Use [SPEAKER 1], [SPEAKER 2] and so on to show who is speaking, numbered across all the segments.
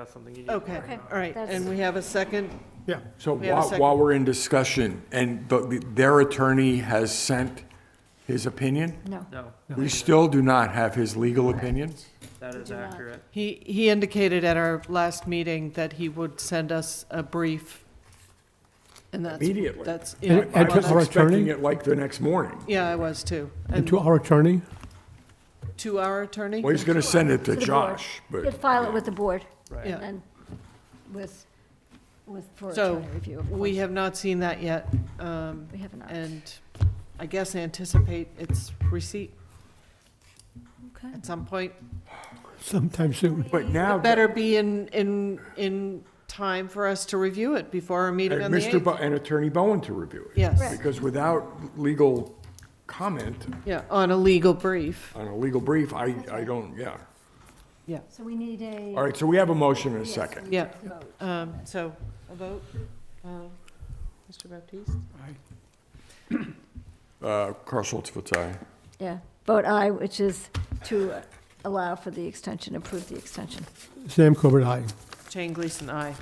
[SPEAKER 1] That's something you need.
[SPEAKER 2] Okay,
[SPEAKER 3] Okay,
[SPEAKER 2] all right,
[SPEAKER 3] that's-
[SPEAKER 2] and we have a second?
[SPEAKER 4] Yeah.
[SPEAKER 5] So
[SPEAKER 2] We have a
[SPEAKER 5] while,
[SPEAKER 2] second.
[SPEAKER 5] while we're in discussion, and the- their attorney has sent his opinion,
[SPEAKER 3] No.
[SPEAKER 1] No,
[SPEAKER 5] we still do not have his legal opinion?
[SPEAKER 1] that is
[SPEAKER 3] Do not.
[SPEAKER 1] accurate.
[SPEAKER 2] He, he indicated at our last meeting that he would send us a brief, and that's,
[SPEAKER 5] Immediately.
[SPEAKER 2] that's.
[SPEAKER 4] And-
[SPEAKER 2] in-
[SPEAKER 4] and
[SPEAKER 5] I
[SPEAKER 4] to
[SPEAKER 5] was
[SPEAKER 4] our
[SPEAKER 5] expecting
[SPEAKER 4] attorney?
[SPEAKER 5] it like the next morning.
[SPEAKER 2] Yeah, I was too.
[SPEAKER 4] And
[SPEAKER 2] And
[SPEAKER 4] to our attorney,
[SPEAKER 2] to our attorney?
[SPEAKER 5] Well, he's going to send
[SPEAKER 3] To
[SPEAKER 5] it to
[SPEAKER 3] the board.
[SPEAKER 5] Josh,
[SPEAKER 3] You'd
[SPEAKER 5] but
[SPEAKER 3] file it with the board
[SPEAKER 2] Yeah.
[SPEAKER 3] and then with, with, for
[SPEAKER 2] So,
[SPEAKER 3] attorney review. of
[SPEAKER 2] We
[SPEAKER 3] course.
[SPEAKER 2] have not seen that yet, um,
[SPEAKER 3] We have not.
[SPEAKER 2] and I guess anticipate its receipt
[SPEAKER 3] Okay.
[SPEAKER 2] at some point.
[SPEAKER 4] sometime soon.
[SPEAKER 5] but now,
[SPEAKER 2] It better be in, in, in time for us to review it before our meeting on
[SPEAKER 5] and
[SPEAKER 2] the
[SPEAKER 5] Mr.
[SPEAKER 2] 8th.
[SPEAKER 5] Uh, Bo- and Attorney Bowen to review it.
[SPEAKER 2] Yes,
[SPEAKER 3] Right.
[SPEAKER 5] Because without legal comment
[SPEAKER 2] yeah, on a legal brief,
[SPEAKER 5] on a legal brief, I, I don't, yeah.
[SPEAKER 2] yeah,
[SPEAKER 3] So we need a.
[SPEAKER 5] All right, so we have a motion and a
[SPEAKER 3] yes,
[SPEAKER 5] second.
[SPEAKER 3] we need
[SPEAKER 2] Yeah.
[SPEAKER 3] a vote.
[SPEAKER 2] um, so, a vote, uh, Mr. Baptiste?
[SPEAKER 5] Uh, Carl Schultz votes aye.
[SPEAKER 3] Yeah, vote aye, which is to allow for the extension, approve the extension.
[SPEAKER 4] Sam Corbett, aye.
[SPEAKER 2] Jane Gleason, aye.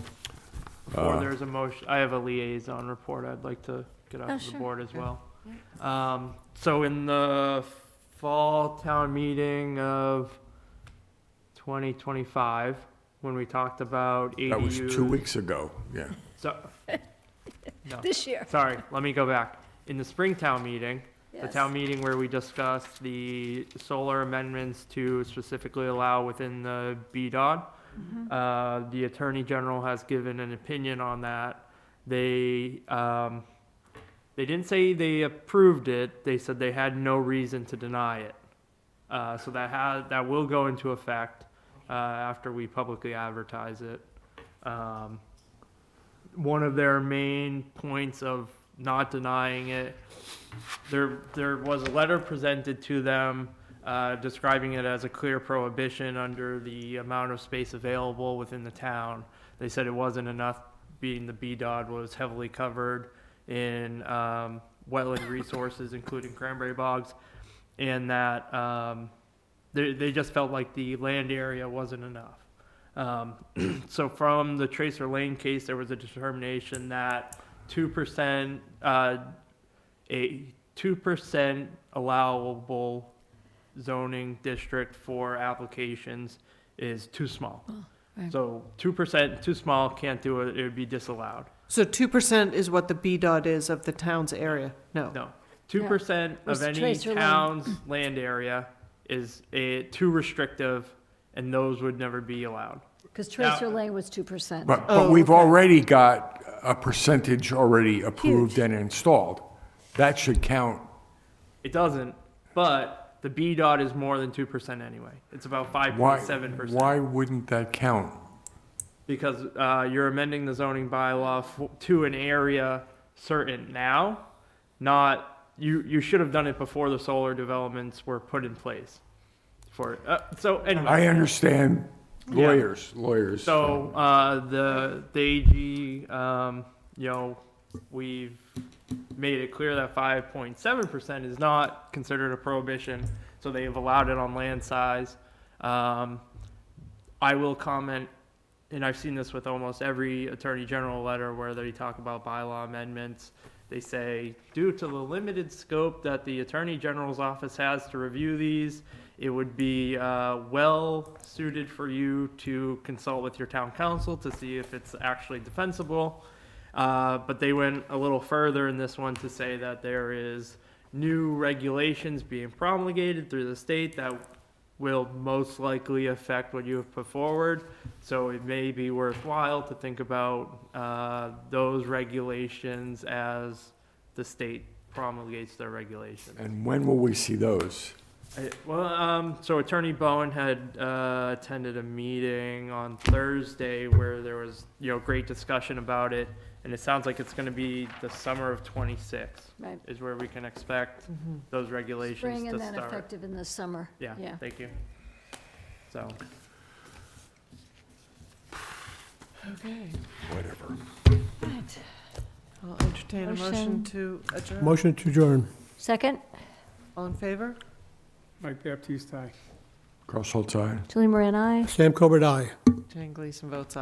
[SPEAKER 5] Uh.
[SPEAKER 1] Or there's a motion, I have a liaison report I'd like to get
[SPEAKER 3] Oh,
[SPEAKER 1] off of the
[SPEAKER 3] sure.
[SPEAKER 1] board as
[SPEAKER 3] Yeah.
[SPEAKER 1] well. Um, so in the fall town meeting of twenty twenty-five, when we talked about ADUs.
[SPEAKER 5] That was two weeks ago, yeah.
[SPEAKER 1] So, no,
[SPEAKER 3] This year.
[SPEAKER 1] sorry, let me go back. In the spring town meeting, the
[SPEAKER 3] Yes.
[SPEAKER 1] town meeting where we discussed the solar amendments to specifically allow within the BDOD.
[SPEAKER 3] Mm-hmm.
[SPEAKER 1] Uh, the Attorney General has given an opinion on that. They, um, they didn't say they approved it, they said they had no reason to deny it. Uh, so that had, that will go into effect, uh, after we publicly advertise it. Um, one of their main points of not denying it there there was a letter presented to them uh, describing it as a clear prohibition under the amount of space available within the town. They said it wasn't enough, being the BDOD was heavily covered in um, wetland resources, including cranberry bogs, and that um, they they just felt like the land area wasn't enough. Um, so from the Tracer Lane case, there was a determination that two percent. Uh, a two percent allowable zoning district for applications is too small.
[SPEAKER 3] Oh, right.
[SPEAKER 1] So two percent, too small, can't do it, it would be disallowed.
[SPEAKER 2] So two percent is what the B dot is of the town's area? No.
[SPEAKER 1] No, two percent of
[SPEAKER 3] Res-
[SPEAKER 1] any
[SPEAKER 3] trace or land.
[SPEAKER 1] town's land area is a, too restrictive, and those would never be allowed.
[SPEAKER 3] Because Tracer Lane was 2%.
[SPEAKER 5] But, but we've already got a percentage already approved and installed. That should count.
[SPEAKER 1] It doesn't, but the B dot is more than two percent anyway. It's about five
[SPEAKER 5] Why,
[SPEAKER 1] point seven percent.
[SPEAKER 5] why wouldn't that count?
[SPEAKER 1] because uh, you're amending the zoning bylaw f- to an area certain now, not, you, you should have done it before the solar developments were put in place for, uh, so anyway.
[SPEAKER 5] I understand
[SPEAKER 1] Yeah.
[SPEAKER 5] lawyers, lawyers.
[SPEAKER 1] So, uh, the, the AG, um, you know, we've made it clear that five point seven percent is not considered a prohibition, so they have allowed it on land size. Um, I will comment, and I've seen this with almost every attorney general letter where they talk about bylaw amendments. They say, due to the limited scope that the attorney general's office has to review these, it would be uh, well suited for you to consult with your town council to see if it's actually defensible. Uh, but they went a little further in this one to say that there is new regulations being promulgated through the state that will most likely affect what you have put forward. So it may be worthwhile to think about uh, those regulations as the state promulgates their regulations.
[SPEAKER 5] And when will we see those?
[SPEAKER 1] I- Well, um, so Attorney Bowen had, uh, attended a meeting on Thursday where there was, you know, great discussion about it. And it sounds like it's gonna be the summer of twenty-six
[SPEAKER 3] Right.
[SPEAKER 1] is where we can expect
[SPEAKER 2] Mm-hmm.
[SPEAKER 1] those regulations
[SPEAKER 3] Spring
[SPEAKER 1] to
[SPEAKER 3] and then
[SPEAKER 1] start.
[SPEAKER 3] effective in the summer.
[SPEAKER 1] Yeah,
[SPEAKER 3] Yeah.
[SPEAKER 1] thank you. So,
[SPEAKER 2] Okay,
[SPEAKER 5] Whatever.
[SPEAKER 3] Right.
[SPEAKER 2] I'll entertain a motion
[SPEAKER 3] Motion.
[SPEAKER 2] to adjourn.
[SPEAKER 4] Motion to adjourn.
[SPEAKER 3] Second,
[SPEAKER 2] All in favor?
[SPEAKER 6] Mike Baptiste, aye.
[SPEAKER 5] Carl Schultz, aye.
[SPEAKER 3] Julie Moran, aye.
[SPEAKER 4] Sam Corbett, aye.
[SPEAKER 2] Jane Gleason votes